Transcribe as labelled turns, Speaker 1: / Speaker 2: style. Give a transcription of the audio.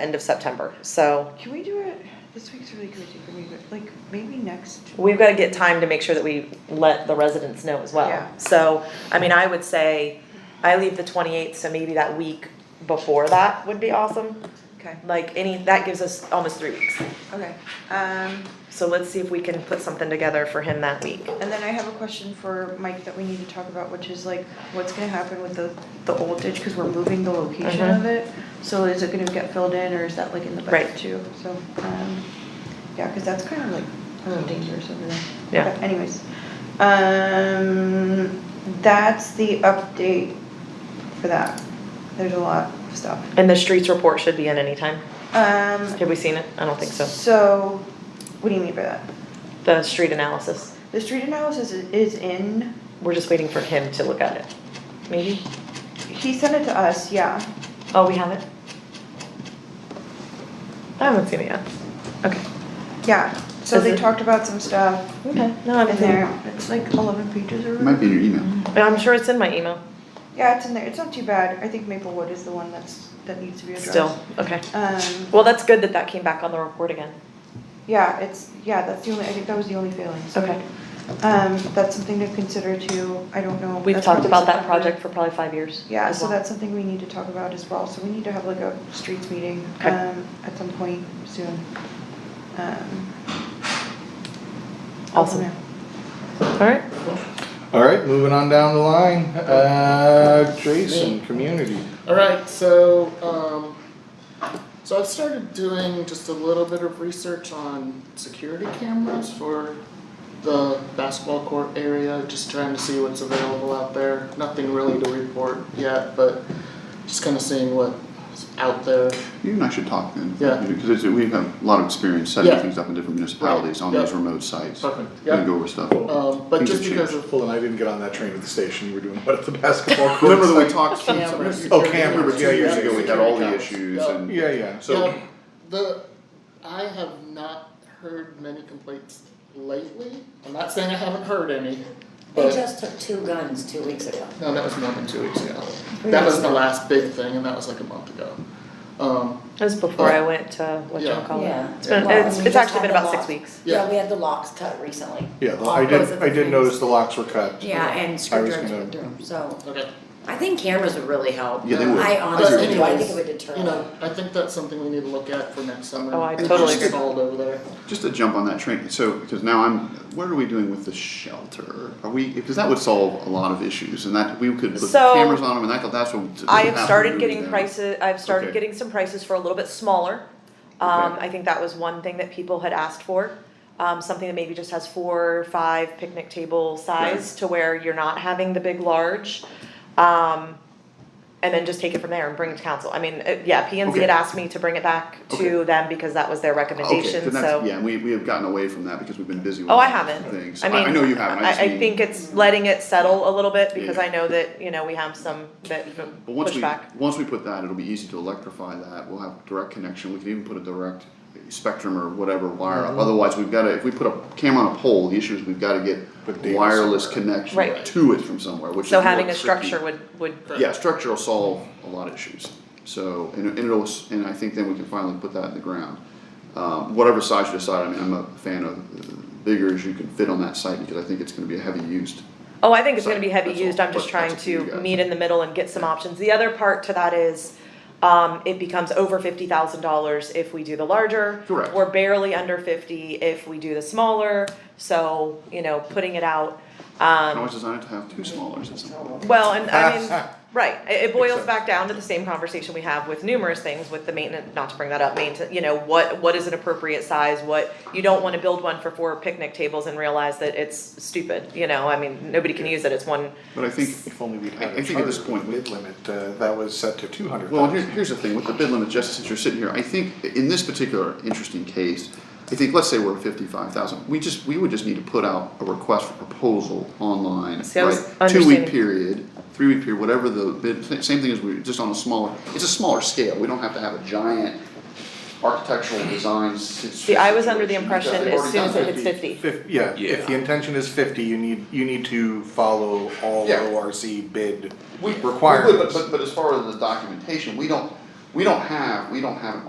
Speaker 1: end of September. So
Speaker 2: Can we do it, this week's really crazy for me, but like maybe next,
Speaker 1: we've got to get time to make sure that we let the residents know as well.
Speaker 2: Yeah.
Speaker 1: So, I mean, I would say I leave the 28th, so maybe that week before that would be awesome.
Speaker 2: okay,
Speaker 1: Like any, that gives us almost three weeks.
Speaker 2: okay. Um,
Speaker 1: So let's see if we can put something together for him that week.
Speaker 2: and then I have a question for Mike that we need to talk about, which is like, what's gonna happen with the, the old ditch, cause we're moving the location
Speaker 1: Mhm.
Speaker 2: of it. So is it gonna get filled in, or is that like in the
Speaker 1: Right.
Speaker 2: budget too? So, um, yeah, cause that's kind of like a little dangerous over there.
Speaker 1: Yeah.
Speaker 2: But Anyways, um, that's the update for that. There's a lot of stuff.
Speaker 1: And the streets report should be in anytime.
Speaker 2: Um,
Speaker 1: Have we seen it? I don't think so.
Speaker 2: So, what do you mean by that?
Speaker 1: The street analysis.
Speaker 2: The street analysis is- is in,
Speaker 1: We're just waiting for him to look at it. Maybe?
Speaker 2: he sent it to us, yeah.
Speaker 1: Oh, we have it? I haven't seen it yet. Okay.
Speaker 2: Yeah, so
Speaker 1: Is
Speaker 2: they
Speaker 1: it-
Speaker 2: talked about some stuff
Speaker 1: Okay. No, I
Speaker 2: in
Speaker 1: haven't seen
Speaker 2: there.
Speaker 1: it.
Speaker 2: It's like eleven pages or
Speaker 3: It might be in your email.
Speaker 1: But I'm sure it's in my email
Speaker 2: Yeah, it's in there. It's not too bad. I think Maplewood is the one that's, that needs to be addressed.
Speaker 1: still. Okay.
Speaker 2: Um,
Speaker 1: Well, that's good that that came back on the report again.
Speaker 2: yeah, it's, yeah, that's the only, I think that was the only failing, so.
Speaker 1: Okay.
Speaker 2: Um, that's something to consider too. I don't know.
Speaker 1: We've
Speaker 2: That's
Speaker 1: talked
Speaker 2: probably
Speaker 1: about that
Speaker 2: something-
Speaker 1: project for probably five years.
Speaker 2: Yeah,
Speaker 1: as
Speaker 2: so
Speaker 1: well.
Speaker 2: that's something we need to talk about as well, so we need to have like a streets meeting,
Speaker 1: Okay.
Speaker 2: um, at some point soon. Um, I don't
Speaker 1: Awesome.
Speaker 2: know.
Speaker 1: All right.
Speaker 4: All right, moving on down the line, uh, Jason, community.
Speaker 5: All right, so um, so I've started doing just a little bit of research on security cameras for the basketball court area, just trying to see what's available out there. Nothing really to report yet, but just kind of seeing what's out there.
Speaker 3: You and I should talk then.
Speaker 5: Yeah.
Speaker 3: Because we have a lot of experience setting
Speaker 5: Yeah.
Speaker 3: things up in different municipalities on
Speaker 5: Yeah.
Speaker 3: those remote sites.
Speaker 5: Perfect.
Speaker 3: And
Speaker 5: Yeah.
Speaker 3: go over stuff.
Speaker 5: Um, but
Speaker 3: Things
Speaker 5: just
Speaker 3: have
Speaker 5: because
Speaker 3: changed.
Speaker 5: of
Speaker 4: Well, and I didn't get on that train at the station, we were doing what at the basketball court.
Speaker 3: Remember that we talked some, some
Speaker 5: Cameras.
Speaker 3: security
Speaker 4: Oh, cameras,
Speaker 3: cameras
Speaker 4: yeah,
Speaker 3: two years
Speaker 4: yeah,
Speaker 3: ago, we had all the
Speaker 5: security
Speaker 3: issues
Speaker 5: cameras.
Speaker 3: and.
Speaker 4: Yeah, yeah.
Speaker 3: So-
Speaker 5: Yeah, the I have not heard many complaints lately. I'm not saying I haven't heard any,
Speaker 6: They
Speaker 5: but
Speaker 6: just took two guns two weeks ago.
Speaker 5: no, that was more than two weeks ago. That was the last big thing, and that was like a month ago. Um,
Speaker 1: That was before I went to what you
Speaker 5: Yeah.
Speaker 1: call it.
Speaker 6: Yeah.
Speaker 1: Uh, It's been,
Speaker 6: Well, and
Speaker 1: it's,
Speaker 6: we
Speaker 1: it's
Speaker 6: just
Speaker 1: actually
Speaker 6: had
Speaker 1: been
Speaker 6: the
Speaker 1: about six
Speaker 6: locks.
Speaker 1: weeks.
Speaker 6: Oh, Yeah, we had the locks cut recently.
Speaker 4: Yeah, the-
Speaker 6: All
Speaker 4: I
Speaker 6: those
Speaker 4: did,
Speaker 6: are the
Speaker 4: I did
Speaker 6: things.
Speaker 4: notice the locks were cut.
Speaker 6: Yeah, and screwdrivers
Speaker 4: gonna-
Speaker 6: went through 'em, so
Speaker 5: okay.
Speaker 6: I think cameras would really help.
Speaker 3: Yeah, they would.
Speaker 6: I honestly
Speaker 5: But
Speaker 6: do, I think
Speaker 5: anyways,
Speaker 6: it would deter.
Speaker 5: You know, I think that's something we need to look at for next summer.
Speaker 1: Oh, I
Speaker 5: It's
Speaker 1: totally
Speaker 5: just
Speaker 1: agree.
Speaker 5: stalled over there.
Speaker 3: Just to jump on that train, so, because now I'm, what are we doing with the shelter? Are we, because that would solve a lot of issues and that, we could put
Speaker 1: So,
Speaker 3: cameras on them and that could, that's what.
Speaker 1: I have started
Speaker 3: absolutely
Speaker 1: getting
Speaker 3: done.
Speaker 1: prices, I've started
Speaker 3: Okay.
Speaker 1: getting some prices for a little bit smaller. Um,
Speaker 3: Okay.
Speaker 1: I think that was one thing that people had asked for. Um, something that maybe just has four, five picnic table size to where you're not having the big large. Um, and then just take it from there and bring it to council. I mean, uh, yeah, P and Z had
Speaker 3: Okay.
Speaker 1: asked me to bring it back to
Speaker 3: Okay.
Speaker 1: them because that was their
Speaker 3: Okay,
Speaker 1: recommendation,
Speaker 3: then that's,
Speaker 1: so.
Speaker 3: yeah, we, we have gotten away from that because we've been busy with
Speaker 1: Oh, I
Speaker 3: other
Speaker 1: haven't.
Speaker 3: things.
Speaker 1: I mean.
Speaker 3: I know you haven't, I just
Speaker 1: I,
Speaker 3: mean-
Speaker 1: I think it's letting it settle a little bit because
Speaker 3: Yeah.
Speaker 1: I know that, you know, we have some that
Speaker 3: But once we,
Speaker 1: pushback.
Speaker 3: once we put that, it'll be easy to electrify that, we'll have direct connection, we can even put a direct spectrum or whatever wire
Speaker 1: Mm-hmm.
Speaker 3: up, otherwise we've gotta, if we put a camera on a pole, the issue is we've gotta
Speaker 4: Put
Speaker 3: get
Speaker 4: data
Speaker 3: wireless
Speaker 4: somewhere.
Speaker 3: connection
Speaker 1: Right.
Speaker 3: to it from somewhere, which is
Speaker 1: So
Speaker 3: more
Speaker 1: having a
Speaker 3: tricky.
Speaker 1: structure would, would
Speaker 3: Yeah, structure will solve a lot of issues, so, and, and it'll, s- and I think then we can finally put that in the ground. Um, whatever size you decide, I mean, I'm a fan of uh, bigger as you can fit on that site, because I think it's gonna be a heavy used.
Speaker 1: Oh, I think it's
Speaker 3: So,
Speaker 1: gonna be heavy
Speaker 3: that's all.
Speaker 1: used, I'm just
Speaker 3: But
Speaker 1: trying
Speaker 3: that's up to you
Speaker 1: to
Speaker 3: guys.
Speaker 1: meet in the middle and get some options. The other part to that is, um, it becomes over fifty thousand dollars if we do the larger.
Speaker 3: Correct.
Speaker 1: We're barely under fifty if we do the smaller, so, you know, putting it out,
Speaker 3: I
Speaker 1: um,
Speaker 3: always designed it to have two smallers at some point.
Speaker 1: well, and I mean, right, it, it boils back down to the same conversation we have with numerous things with the maintenance, not to bring that up, maintain, you know, what, what is an appropriate size, what, you don't wanna build one for four picnic tables and realize that it's stupid, you know, I mean, nobody can use it, it's one
Speaker 3: But I think
Speaker 4: If only we'd
Speaker 3: I-
Speaker 4: had
Speaker 3: I
Speaker 4: a
Speaker 3: think at this
Speaker 4: charter
Speaker 3: point-
Speaker 4: bid limit, uh, that was set to two hundred
Speaker 3: Well, here,
Speaker 4: thousand.
Speaker 3: here's the thing, with the bid limit, just since you're sitting here, I think in this particular interesting case, I think, let's say we're fifty-five thousand, we just, we would just need to put out a request for proposal online,
Speaker 1: See, I was
Speaker 3: right? Two-week
Speaker 1: understanding.
Speaker 3: period, three-week period, whatever the bid, sa- same thing as we, just on a smaller, it's a smaller scale, we don't have to have a giant architectural design si-
Speaker 1: See, I was under the
Speaker 3: situation, because
Speaker 1: impression
Speaker 3: they've
Speaker 1: as
Speaker 3: already
Speaker 1: soon as
Speaker 3: done
Speaker 1: it hits
Speaker 3: 50.
Speaker 1: fifty.
Speaker 4: Fif- yeah, if the
Speaker 3: Yeah.
Speaker 4: intention is fifty, you need, you need to follow all
Speaker 3: Yeah.
Speaker 4: ORC bid
Speaker 3: We- we would,
Speaker 4: requirements.
Speaker 3: But, but, but as far as the documentation, we don't, we don't have, we don't have an